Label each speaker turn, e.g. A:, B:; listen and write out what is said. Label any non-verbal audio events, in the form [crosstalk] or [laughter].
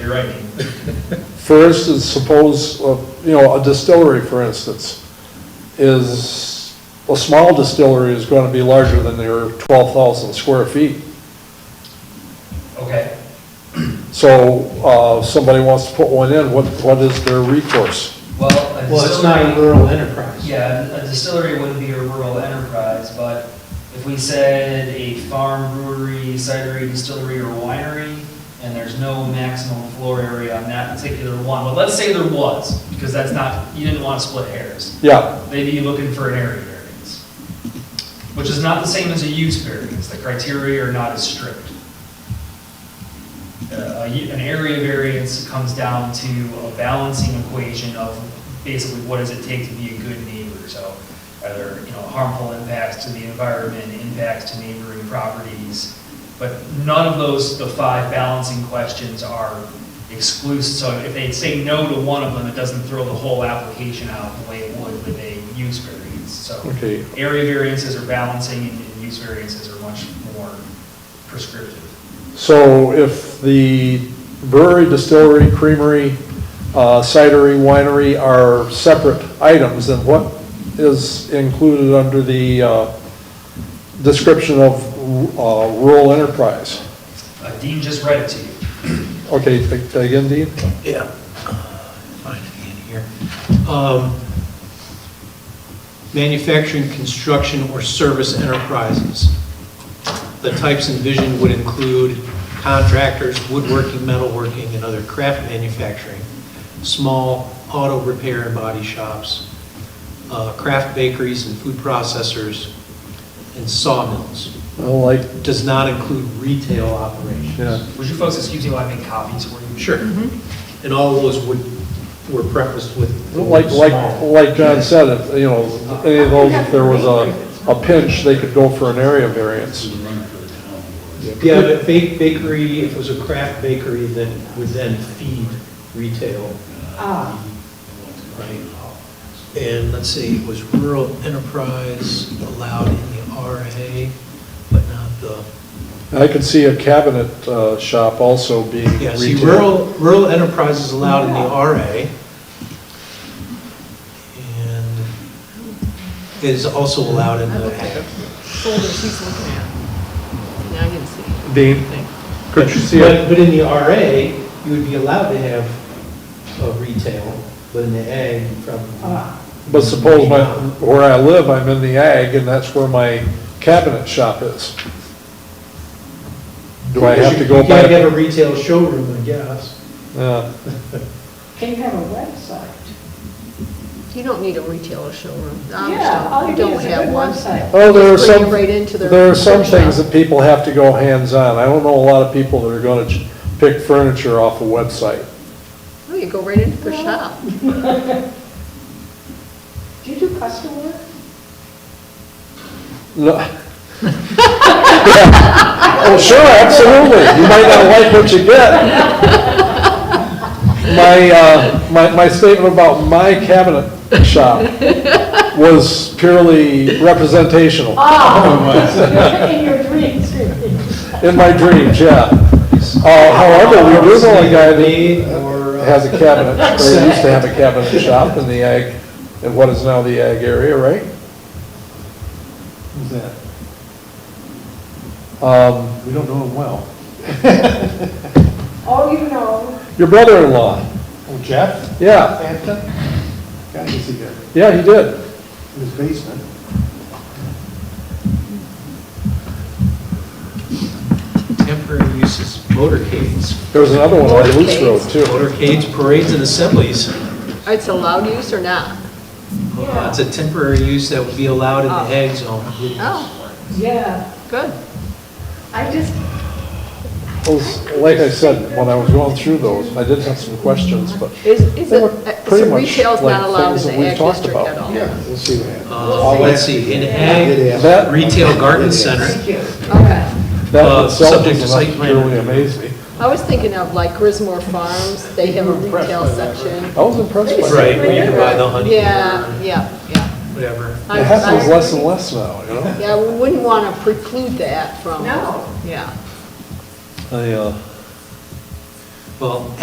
A: you're right.
B: For instance, suppose, uh, you know, a distillery, for instance, is, a small distillery is going to be larger than their 12,000 square feet.
A: Okay,
B: So uh, somebody wants to put one in, what, what is their recourse?
A: well, a distillery.
C: Well, it's not a rural enterprise.
A: Yeah, a distillery wouldn't be a rural enterprise, but if we said a farm brewery, cidery, distillery, or winery, and there's no maximum floor area on that particular one, but let's say there was, because that's not, you didn't want to split hairs.
B: Yeah,
A: They'd be looking for an area variance, which is not the same as a use variance. The criteria are not as strict. Uh, a u- An area variance comes down to a balancing equation of basically what does it take to be a good neighbor? So are there, you know, harmful impacts to the environment, impacts to neighboring properties? But none of those, the five balancing questions are exclusive. So if they say no to one of them, it doesn't throw the whole application out the way it would with a use variance. So
B: okay.
A: area variances are balancing and and use variances are much more prescriptive.
B: So if the brewery, distillery, creamery, uh, cidery, winery are separate items, then what is included under the uh, description of uh, rural enterprise?
A: Uh, Dean just read it to you.
B: Okay, a- again, Dean?
C: Yeah. Find it in here. Um, Manufacturing, construction, or service enterprises. The types envisioned would include contractors, woodworking, metalworking, and other craft manufacturing, small auto repair and body shops, uh, craft bakeries and food processors, and sawmills.
B: I like,
C: Does not include retail operations.
B: yeah,
A: Would you folks excuse me while I make copies for you?
C: Sure. And all those would, were prefaced with.
B: like, like, like John said, if, you know, any of those, if there was a, a pinch, they could go for an area variance.
C: Yeah, but ba- bakery, if it was a craft bakery, then, would then feed retail,
D: Ah,
C: right? And let's see, was rural enterprise allowed in the RA, but not the,
B: I could see a cabinet uh, shop also being
C: yeah,
B: retail.
C: see, rural, rural enterprise is allowed in the
D: Yeah.
C: RA. And is also allowed in
D: I'm
C: the.
D: looking at folders he's looking at. Now you can see.
B: Dean, could you see
C: But,
B: it?
C: but in the RA, you would be allowed to have a retail, but in the A, you probably.
D: Ah,
B: But suppose my, where I live, I'm in the ag, and that's where my cabinet shop is. Do I have to go
C: You can't
B: by?
C: have a retail showroom, I guess.
B: Yeah.
E: They have a website.
D: You don't need a retailer showroom.
E: Yeah, all you need
D: don't
E: is a
D: have
E: good
D: one.
E: website.
B: Oh, there are
D: Just bring it
B: some,
D: right into their
B: there are some
D: workshop.
B: things that people have to go hands-on. I don't know a lot of people that are going to pick furniture off a website.
D: Oh, you go right into their shop.
E: Do you do custom work?
B: No. [laughs] Oh, sure, absolutely. You might not like what you get. My, uh, my, my statement about my cabinet shop was purely representational
E: Ah, [laughs] in your dreams, [laughs] really.
B: in my dreams, yeah. Uh, however, we do know a guy that
C: Or, uh,
B: has a
C: [laughs]
B: cabinet, or used to have a cabinet shop in the ag, in what is now the ag area, right?
C: who's that?
B: Um,
C: We don't know him well.
E: Oh, you know,
B: your brother-in-law,
C: Oh, Jeff?
B: yeah,
C: Hampton? God, is he good,
B: yeah, he did.
C: in his basement. Temporary uses, motorcades.
B: There was another one on Loose
D: Motorcades.
B: Road, too.
C: Motorcades, parades, and assemblies.
D: It's allowed use or not?
C: Uh, It's a temporary use that would be allowed in the ag zone.
D: Oh,
E: yeah,
D: good.
E: I just,
B: Those- Like I said, when I was going through those, I did have some questions, but
D: Is, is
B: they were
D: it, uh,
B: pretty
D: so
B: much
D: retail's
B: like
D: not allowed
B: things that
D: in
B: we've
D: the ag
B: talked
D: district
B: about.
D: at all?
F: Yeah, we'll see what happens.
C: Uh, Let's see, in ag,
B: that,
C: retail garden center,
E: thank you.
D: Okay.
B: that
C: Uh,
B: itself
C: subject to
B: was
C: site
B: enough
C: plan
B: to really
C: review.
B: amaze me.
D: I was thinking of like Grismore Farms, they have a retail section.
B: I was impressed by
C: right,
B: that.
C: where you can buy the honey
D: Yeah,
C: or
D: yeah, yeah.
C: whatever.
D: I-
B: It happens
D: I-
B: less and less now, you know?
D: Yeah, we wouldn't want to preclude that from.
E: No.
D: Yeah.
B: I, uh,
C: 哎 Well,